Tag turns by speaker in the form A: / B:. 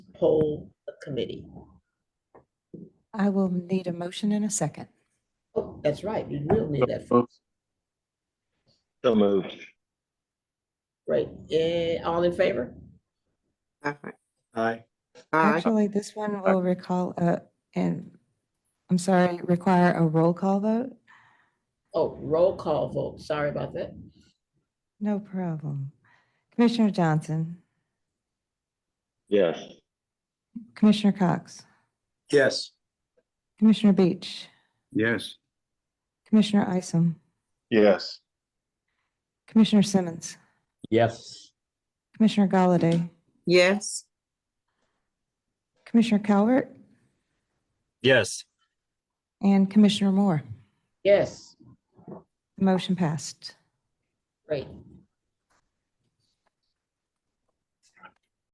A: poll a committee.
B: I will need a motion in a second.
A: Oh, that's right, we will need that.
C: So moved.
A: Great, and Eh, all in favor?
D: Aye.
C: Aye.
D: Aye.
B: Actually, this one will recall, uh, and, I'm sorry, require a roll call vote?
A: Oh, roll call vote, sorry about that.
B: No problem. Commissioner Johnson,
C: Yes.
B: Commissioner Cox,
C: Yes.
B: Commissioner Beach,
C: Yes.
B: Commissioner Isom,
C: Yes.
B: Commissioner Simmons,
C: Yes.
B: Commissioner Galladay,
D: Yes.
B: Commissioner Calvert,
E: Yes.
B: and Commissioner Moore.
A: Yes,
B: The Motion passed.
A: great,